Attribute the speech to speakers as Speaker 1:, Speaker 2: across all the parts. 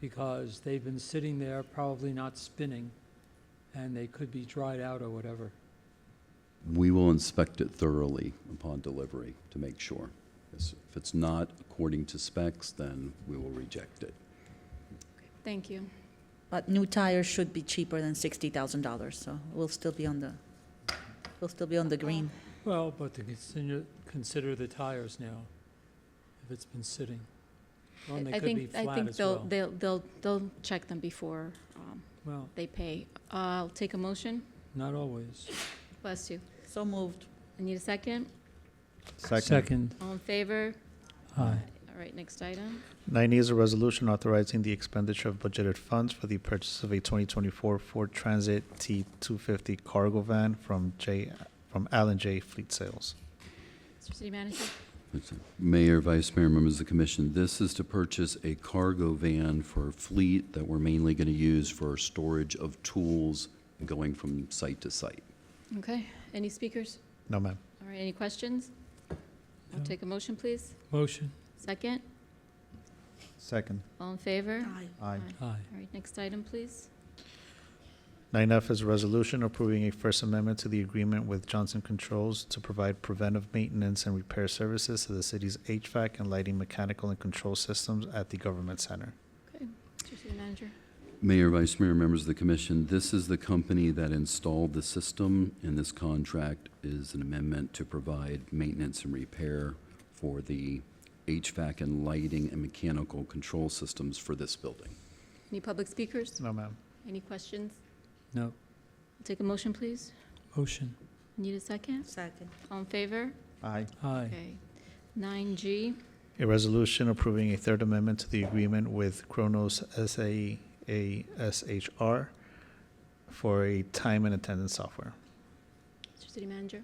Speaker 1: because they've been sitting there, probably not spinning, and they could be dried out or whatever.
Speaker 2: We will inspect it thoroughly upon delivery to make sure. Yes, If it's not according to specs, then we will reject it.
Speaker 3: Thank you.
Speaker 4: But new tires should be cheaper than sixty thousand dollars, so we'll still be on the, we'll still be on the green.
Speaker 1: Well, but to consider, consider the tires now, if it's been sitting. Well, and
Speaker 3: I-
Speaker 1: they
Speaker 3: I
Speaker 1: could be
Speaker 3: think, I
Speaker 1: flat
Speaker 3: think
Speaker 1: as
Speaker 3: they'll,
Speaker 1: well.
Speaker 3: they'll, they'll, they'll check them before um,
Speaker 1: Well,
Speaker 3: they pay. I'll take a motion.
Speaker 1: not always.
Speaker 3: Bless you.
Speaker 4: So moved.
Speaker 3: I need a second.
Speaker 1: Second,
Speaker 3: All in favor?
Speaker 1: aye.
Speaker 3: All right, next item.
Speaker 5: 9E is a resolution authorizing the expenditure of budgeted funds for the purchase of a 2024 Ford Transit T250 cargo van from J, from Allen J Fleet Sales.
Speaker 3: Mr. City Manager?
Speaker 2: Mayor, Vice Mayor, members of the commission, this is to purchase a cargo van for a fleet that we're mainly going to use for storage of tools going from site to site.
Speaker 3: Okay, any speakers?
Speaker 5: No, ma'am.
Speaker 3: All right, any questions? I'll
Speaker 1: No.
Speaker 3: take a motion, please.
Speaker 1: Motion,
Speaker 3: Second.
Speaker 5: Second.
Speaker 3: All in favor?
Speaker 5: Aye.
Speaker 1: aye.
Speaker 3: All right, next item, please.
Speaker 5: 9F is a resolution approving a First Amendment to the agreement with Johnson Controls to provide preventive maintenance and repair services to the city's HVAC and lighting mechanical and control systems at the government center.
Speaker 3: Okay, Mr. City Manager?
Speaker 2: Mayor, Vice Mayor, members of the commission, this is the company that installed the system, and this contract is an amendment to provide maintenance and repair for the HVAC and lighting and mechanical control systems for this building.
Speaker 3: Any public speakers?
Speaker 5: No, ma'am.
Speaker 3: Any questions?
Speaker 1: No,
Speaker 3: I'll Take a motion, please.
Speaker 1: motion,
Speaker 3: Need a second?
Speaker 4: Second.
Speaker 3: All in favor?
Speaker 5: Aye.
Speaker 1: aye.
Speaker 3: Okay. Nine G,
Speaker 5: A resolution approving a third amendment to the agreement with Kronos SAE ASHR for a time and attendance software.
Speaker 3: Mr. City Manager.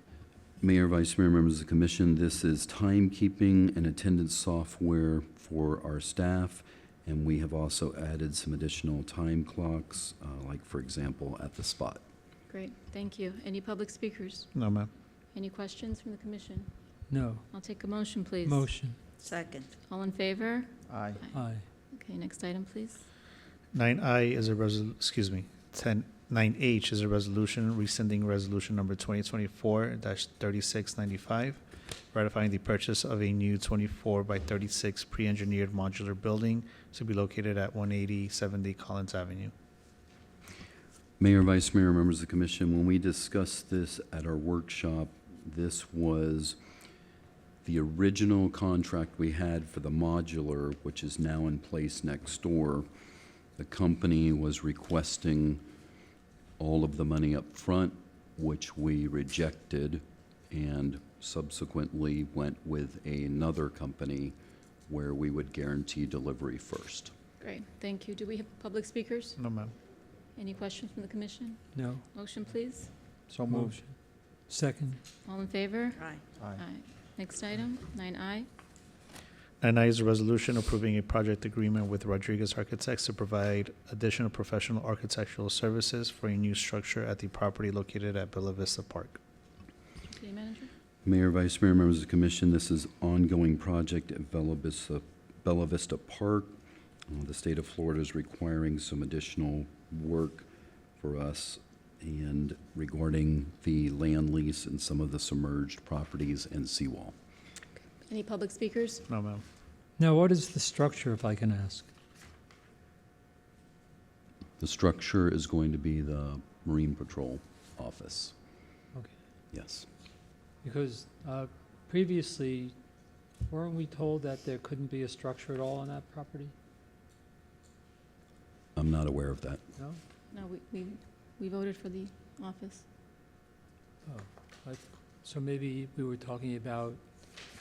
Speaker 2: Mayor, Vice Mayor, members of the commission, this is timekeeping and attendance software for our staff, and we have also added some additional time clocks, uh, like, for example, at the spot.
Speaker 3: Great, thank you. Any public speakers?
Speaker 5: No, ma'am.
Speaker 3: Any questions from the commission?
Speaker 1: No,
Speaker 3: I'll take a motion, please.
Speaker 1: motion,
Speaker 4: Second.
Speaker 3: All in favor?
Speaker 5: Aye.
Speaker 1: aye.
Speaker 3: Okay, next item, please.
Speaker 5: Nine I is a resol, excuse me, ten, nine H is a resolution rescinding resolution number twenty twenty-four thirty-six ninety-five, ratifying the purchase of a new twenty-four by thirty-six pre-engineered modular building to be located at one eighty seventy Collins Avenue.
Speaker 2: Mayor, Vice Mayor, members of the commission, when we discussed this at our workshop, this was the original contract we had for the modular, which is now in place next door. The company was requesting all of the money up front, which we rejected, and subsequently went with another company where we would guarantee delivery first.
Speaker 3: Great, thank you. Do we have public speakers?
Speaker 5: No, ma'am.
Speaker 3: Any questions from the commission?
Speaker 1: No,
Speaker 3: Motion, please.
Speaker 5: So
Speaker 1: motion. Second,
Speaker 3: All in favor?
Speaker 4: Aye.
Speaker 5: Aye.
Speaker 3: Aye. Next item, nine I.
Speaker 5: Nine I is a resolution approving a project agreement with Rodriguez Architects to provide additional professional architectural services for a new structure at the property located at Bella Vista Park.
Speaker 3: Mr. City Manager?
Speaker 2: Mayor, Vice Mayor, members of the commission, this is ongoing project at Bella Vista, Bella Vista Park. Uh, The state of Florida is requiring some additional work for us and regarding the land lease and some of the submerged properties and seawall.
Speaker 3: Any public speakers?
Speaker 5: No, ma'am.
Speaker 1: now what is the structure, if I can ask?
Speaker 2: The structure is going to be the Marine Patrol office.
Speaker 1: Okay.
Speaker 2: Yes.
Speaker 1: Because uh, previously, weren't we told that there couldn't be a structure at all on that property?
Speaker 2: I'm not aware of that.
Speaker 1: No?
Speaker 3: No, we, we, we voted for the office.
Speaker 1: Oh, I- So maybe we were talking about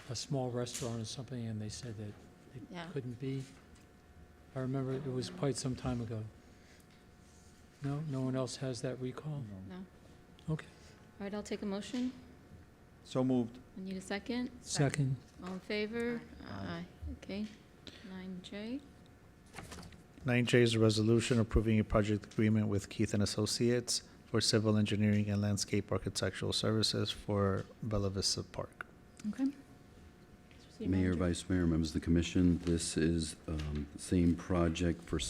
Speaker 1: a small restaurant or something, and they said that
Speaker 3: Yeah.
Speaker 1: couldn't be? I remember it was quite some time ago. No, no one else has that recall?
Speaker 3: All right, I'll take a motion.
Speaker 5: So moved.
Speaker 3: I need a second.
Speaker 1: Second,
Speaker 3: All in favor?
Speaker 5: Aye.
Speaker 3: Okay, nine J.
Speaker 5: Nine J is a resolution approving a project agreement with Keith and Associates for civil engineering and landscape architectural services for Bella Vista Park.
Speaker 3: Okay.
Speaker 2: Mayor, Vice Mayor, members of the commission, this is um, the same project for